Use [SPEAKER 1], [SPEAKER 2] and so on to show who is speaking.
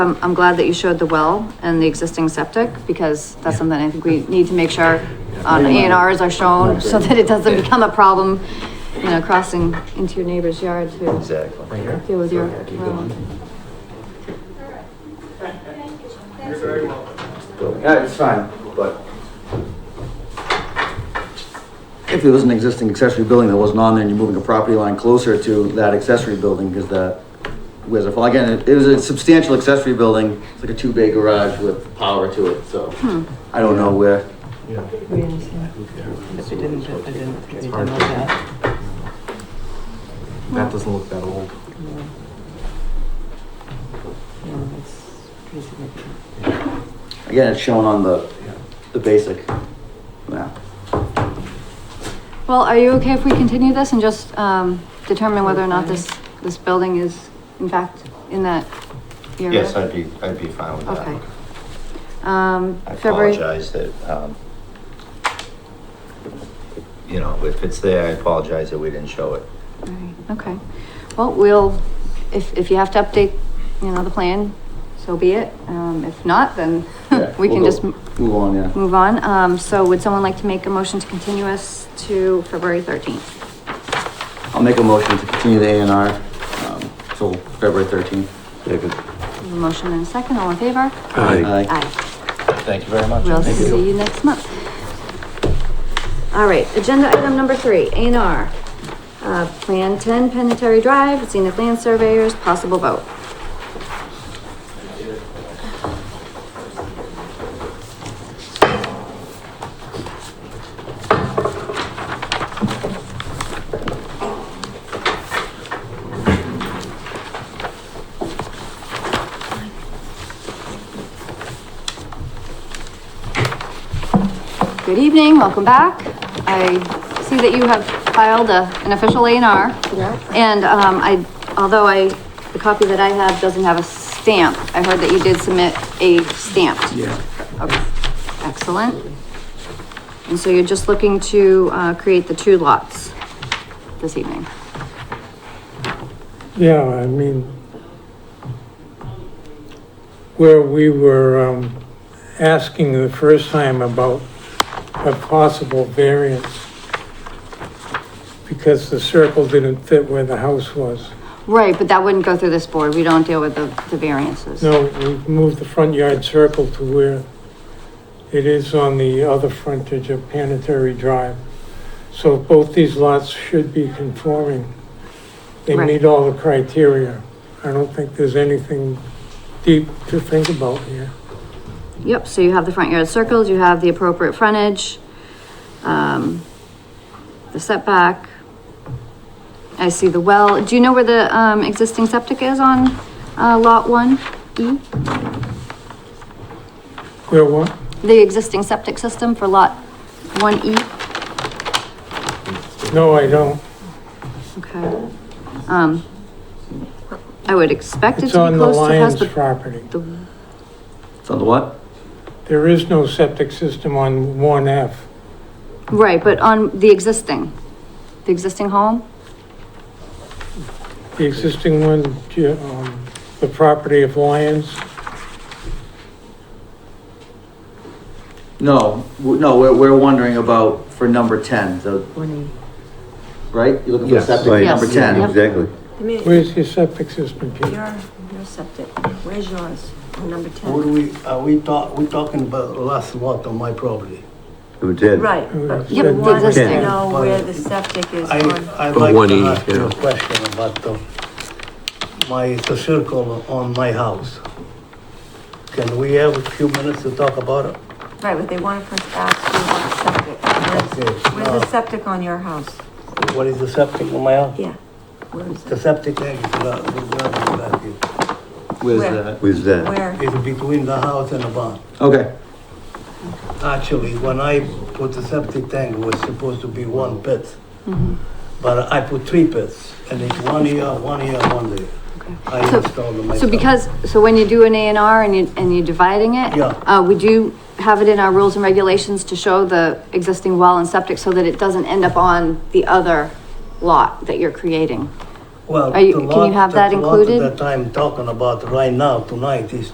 [SPEAKER 1] I'm, Um, I'm glad that you showed the well and the existing septic, because that's something I think we need to make sure on A and Rs are shown, so that it doesn't become a problem, you know, crossing into your neighbor's yard to
[SPEAKER 2] Exactly.
[SPEAKER 1] deal with your.
[SPEAKER 2] Yeah, keep
[SPEAKER 1] well.
[SPEAKER 2] building. Yeah, it's fine, but. If there was an existing accessory building that wasn't on there and you're moving a property line closer to that accessory building, because that was a, well, again, it it was a substantial accessory building, it's like a two-bay garage with power to it, so.
[SPEAKER 1] Hmm.
[SPEAKER 2] I don't know where,
[SPEAKER 3] I didn't, I didn't, I didn't know that.
[SPEAKER 4] That doesn't look that old.
[SPEAKER 3] No, that's pretty significant.
[SPEAKER 2] again, it's shown on the, the basic map.
[SPEAKER 1] Well, are you okay if we continue this and just, um, determine whether or not this, this building is in fact in that area?
[SPEAKER 5] Yes, I'd be, I'd be fine with
[SPEAKER 1] Okay.
[SPEAKER 5] that.
[SPEAKER 1] Um,
[SPEAKER 5] I
[SPEAKER 1] February.
[SPEAKER 5] apologize that, um, you know, if it's there, I apologize that we didn't show it.
[SPEAKER 1] Right, Okay, well, we'll, if, if you have to update, you know, the plan, so be it. Um, if not, then
[SPEAKER 2] Yeah,
[SPEAKER 1] Hmm. we
[SPEAKER 2] we'll
[SPEAKER 1] can
[SPEAKER 2] go-
[SPEAKER 1] just m-
[SPEAKER 2] Move on, yeah.
[SPEAKER 1] move on. Um, so would someone like to make a motion to continue us to February thirteenth?
[SPEAKER 2] I'll make a motion to continue the A and R, um, till February thirteenth.
[SPEAKER 1] Motion and a second, all in favor?
[SPEAKER 2] Aye.
[SPEAKER 1] Aye.
[SPEAKER 5] Thank you very much.
[SPEAKER 1] We'll
[SPEAKER 5] Thank
[SPEAKER 1] see you next month. All right, agenda item number three, A and R. Uh, Plan ten, Penetary Drive, Zenith Land Surveyors, possible vote. Good evening, welcome back. I see that you have filed a, an official A and R. And, um, I, although I, the copy that I have doesn't have a stamp, I heard that you did submit a stamp.
[SPEAKER 2] Yeah.
[SPEAKER 1] Okay, excellent. And so you're just looking to, uh, create the two lots this evening.
[SPEAKER 6] Yeah, I mean, where we were um, asking the first time about a possible variance because the circle didn't fit where the house was.
[SPEAKER 1] Right, but that wouldn't go through this board. We don't deal with the, the variances.
[SPEAKER 6] No, we've moved the front yard circle to where it is on the other frontage of Planetary Drive. So both these lots should be conforming. They
[SPEAKER 1] Right.
[SPEAKER 6] meet all the criteria. I don't think there's anything deep to think about here.
[SPEAKER 1] Yep, so you have the front yard circles, you have the appropriate frontage, um, the setback. I see the well. Do you know where the, um, existing septic is on, uh, lot one E?
[SPEAKER 6] Where what?
[SPEAKER 1] The existing septic system for lot one E?
[SPEAKER 6] No, I don't.
[SPEAKER 1] Okay. Um, I would expect it
[SPEAKER 6] It's
[SPEAKER 1] to be
[SPEAKER 6] on the
[SPEAKER 1] close to has
[SPEAKER 6] Lyons
[SPEAKER 1] the,
[SPEAKER 6] property.
[SPEAKER 1] the,
[SPEAKER 2] It's on the what?
[SPEAKER 6] There is no septic system on one F.
[SPEAKER 1] right, but on the existing, the existing home?
[SPEAKER 6] The existing one, yeah, um, the property of Lyons,
[SPEAKER 2] No, w- no, we're, we're wondering about for number ten, the, right? You're looking for
[SPEAKER 4] Yes,
[SPEAKER 2] septic for
[SPEAKER 1] right.
[SPEAKER 2] number
[SPEAKER 1] Yes,
[SPEAKER 2] ten.
[SPEAKER 1] yep.
[SPEAKER 4] Exactly.
[SPEAKER 7] I mean,
[SPEAKER 6] where's your septic system, Pete?
[SPEAKER 7] your, your septic, where's yours, On number
[SPEAKER 8] What do
[SPEAKER 7] ten?
[SPEAKER 8] we, are we talk, we talking about last lot on my property?
[SPEAKER 4] Number ten.
[SPEAKER 7] Right, but
[SPEAKER 6] Yep,
[SPEAKER 7] you want
[SPEAKER 1] existing.
[SPEAKER 7] to know where the septic is
[SPEAKER 8] I,
[SPEAKER 7] on,
[SPEAKER 8] I'd like
[SPEAKER 4] 180,
[SPEAKER 8] to ask you a
[SPEAKER 4] yeah.
[SPEAKER 8] question about the, my, the circle on my house. Can we have a few minutes to talk about it?
[SPEAKER 7] right, but they want to first ask you about septic. Where's-
[SPEAKER 8] Okay,
[SPEAKER 7] Where's the
[SPEAKER 8] uh,
[SPEAKER 7] septic on your house?
[SPEAKER 8] What is the septic on my house?
[SPEAKER 7] Yeah. Where is
[SPEAKER 8] The
[SPEAKER 7] it?
[SPEAKER 8] septic tank is, about- is around about here.
[SPEAKER 2] Where's
[SPEAKER 7] Where?
[SPEAKER 2] that?
[SPEAKER 4] Where's that?
[SPEAKER 7] Where?
[SPEAKER 8] It's between the house and the barn.
[SPEAKER 2] Okay,
[SPEAKER 8] Actually, when I put the septic tank, it was supposed to be one pit.
[SPEAKER 1] Mm-hmm.
[SPEAKER 8] But I put three pits, and it's one here, one here, one there.
[SPEAKER 1] Okay.
[SPEAKER 8] I
[SPEAKER 1] So-
[SPEAKER 8] installed them myself.
[SPEAKER 1] So because, so when you do an A and R and you, and you're dividing it?
[SPEAKER 8] Yeah.
[SPEAKER 1] Uh, we do have it in our rules and regulations to show the existing well and septic so that it doesn't end up on the other lot that you're creating.
[SPEAKER 8] Well,
[SPEAKER 1] Are you-
[SPEAKER 8] the
[SPEAKER 1] can you
[SPEAKER 8] lot-
[SPEAKER 1] have that
[SPEAKER 8] the lot
[SPEAKER 1] included?
[SPEAKER 8] That I'm talking about right now, tonight, is